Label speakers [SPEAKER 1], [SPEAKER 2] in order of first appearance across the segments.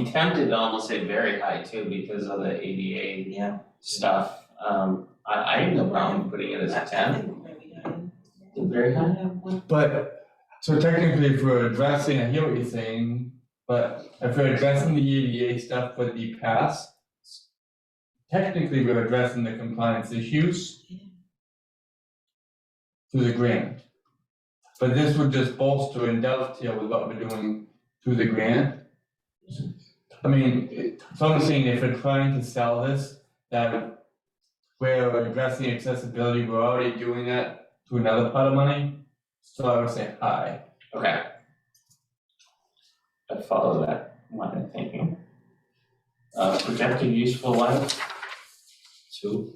[SPEAKER 1] I'm tempted to almost say very high too because of the ADA
[SPEAKER 2] Yeah.
[SPEAKER 1] stuff. Um, I, I have no problem putting it as a ten. Very high?
[SPEAKER 3] But, so technically, if we're addressing, I hear what you're saying, but if we're addressing the EDA stuff for the past, technically, we're addressing the compliance issues through the grant. But this would just bolster and dovetail with what we're doing through the grant. I mean, it- so I'm saying if we're trying to sell this, that we're addressing accessibility, we're already doing that to another pot of money. So I would say hi.
[SPEAKER 1] Okay. I follow that line of thinking. Uh, projected useful life,
[SPEAKER 4] Two.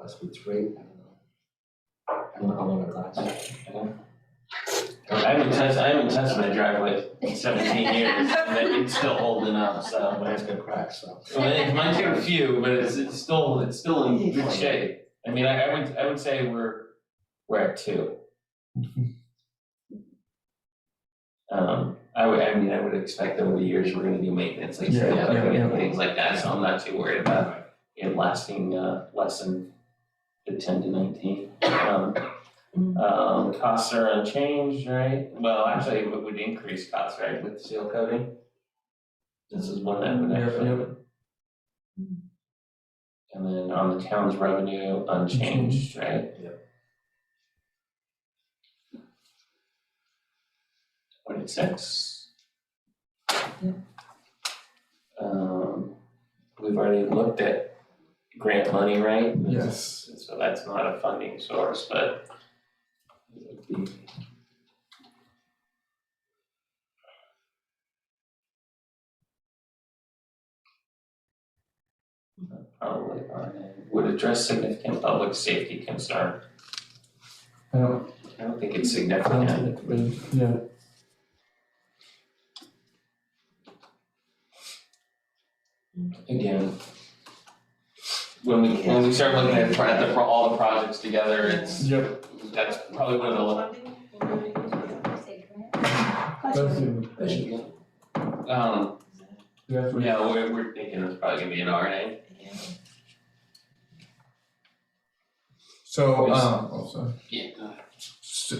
[SPEAKER 4] Must be three, I don't know. I don't know how long it lasts.
[SPEAKER 1] I haven't touched, I haven't touched my driveway in seventeen years, and it's still holding up, so.
[SPEAKER 4] Mine's gonna crack, so.
[SPEAKER 1] Well, it might take a few, but it's, it's still, it's still in good shape. I mean, I, I would, I would say we're, we're at two. Um, I would, I mean, I would expect over the years, we're gonna do maintenance, like,
[SPEAKER 3] Yeah, yeah,
[SPEAKER 1] and
[SPEAKER 3] yeah.
[SPEAKER 1] things like that, so I'm not too worried about it lasting, uh, less than the ten to nineteen. Um, um, costs are unchanged, right? Well, actually, it would increase costs, right, with seal coating? This is one that would
[SPEAKER 3] Yep,
[SPEAKER 1] actually.
[SPEAKER 3] yep.
[SPEAKER 1] And then on the town's revenue, unchanged, right? Yep. Twenty-six. Um, we've already looked at grant money, right?
[SPEAKER 3] Yes.
[SPEAKER 1] So that's not a funding source, but it would be. Probably on it. would address significant public safety concern.
[SPEAKER 3] I don't,
[SPEAKER 1] I don't think it's
[SPEAKER 3] I don't
[SPEAKER 1] significant.
[SPEAKER 3] think it really- yeah.
[SPEAKER 1] Again. When we, when we start looking at, pro- at the, pro- all the projects together, it's,
[SPEAKER 3] Yep.
[SPEAKER 1] that's probably one of the, lo-
[SPEAKER 3] That's it.
[SPEAKER 1] um,
[SPEAKER 3] That's what-
[SPEAKER 1] yeah, we're, we're thinking it's probably gonna be an RNA.
[SPEAKER 3] So, um, oh, sorry.
[SPEAKER 1] Yeah.
[SPEAKER 3] So,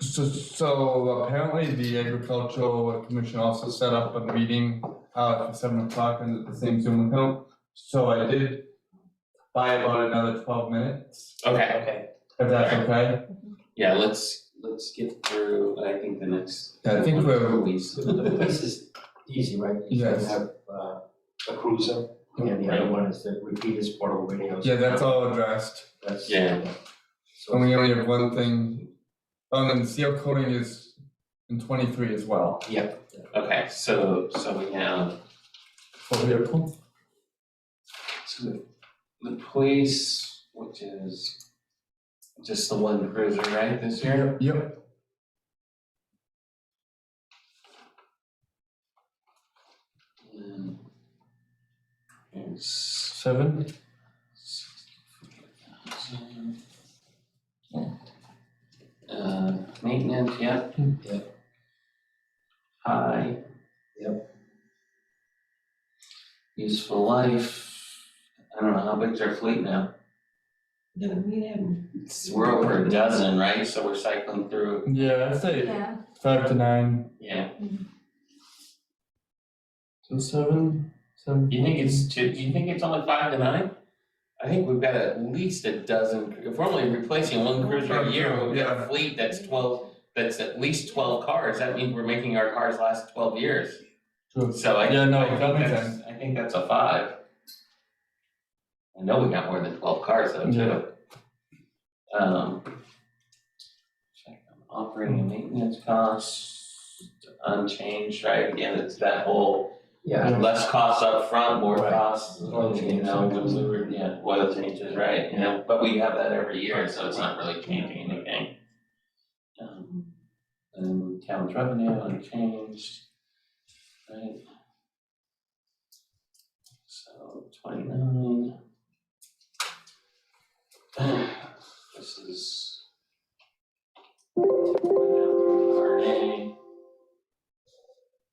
[SPEAKER 3] so, so apparently the agricultural commission also set up a meeting uh at seven o'clock and the same Zoom account. So I did buy about another twelve minutes,
[SPEAKER 1] Okay, okay.
[SPEAKER 3] if that's okay.
[SPEAKER 1] Yeah, let's, let's get through, I think the next.
[SPEAKER 3] Yeah, I think we're,
[SPEAKER 1] Police.
[SPEAKER 4] The the police is easy, right? You can
[SPEAKER 3] Yes.
[SPEAKER 4] have uh, a cruiser, and the other one is the repeaters portable radios.
[SPEAKER 3] yeah, that's all addressed.
[SPEAKER 4] That's.
[SPEAKER 1] Yeah.
[SPEAKER 4] So.
[SPEAKER 3] And we only have one thing, um, and seal coating is in twenty-three as well.
[SPEAKER 1] Okay, so, so we have,
[SPEAKER 3] For vehicle?
[SPEAKER 1] so the, the police, which is just the one cruiser, right, this year?
[SPEAKER 3] Yep.
[SPEAKER 1] And It's
[SPEAKER 3] Seven?
[SPEAKER 1] sixty-five thousand. Uh, maintenance, yep. Yep. High. Yep. Useful life, I don't know, how big's our fleet now? We're over a dozen, right? So we're cycling through,
[SPEAKER 3] Yeah, I'd say
[SPEAKER 5] Yeah,
[SPEAKER 3] five to nine.
[SPEAKER 1] yeah.
[SPEAKER 3] So seven, seven.
[SPEAKER 1] You think it's two, you think it's only five to nine? I think we've got at least a dozen, if we're only replacing one cruiser a year, we've got a
[SPEAKER 3] Yeah.
[SPEAKER 1] fleet that's twelve, that's at least twelve cars, that means we're making our cars last twelve years.
[SPEAKER 3] True.
[SPEAKER 1] So I, I
[SPEAKER 3] Yeah, no,
[SPEAKER 1] think
[SPEAKER 3] that makes
[SPEAKER 1] that's- I think that's a five. I know we got more than twelve cars though,
[SPEAKER 3] Yeah.
[SPEAKER 1] too. Um. check on Operating and maintenance costs unchanged, right? Again, it's that whole
[SPEAKER 4] Yeah,
[SPEAKER 1] less costs up front, more
[SPEAKER 4] Right. Mm-hmm.
[SPEAKER 1] costs,
[SPEAKER 4] Oil
[SPEAKER 1] you know, when we were, yeah, oil changes, right? You know, but we have that every year, so it's not really changing anything. Um, And town's revenue unchanged, right? So twenty-nine.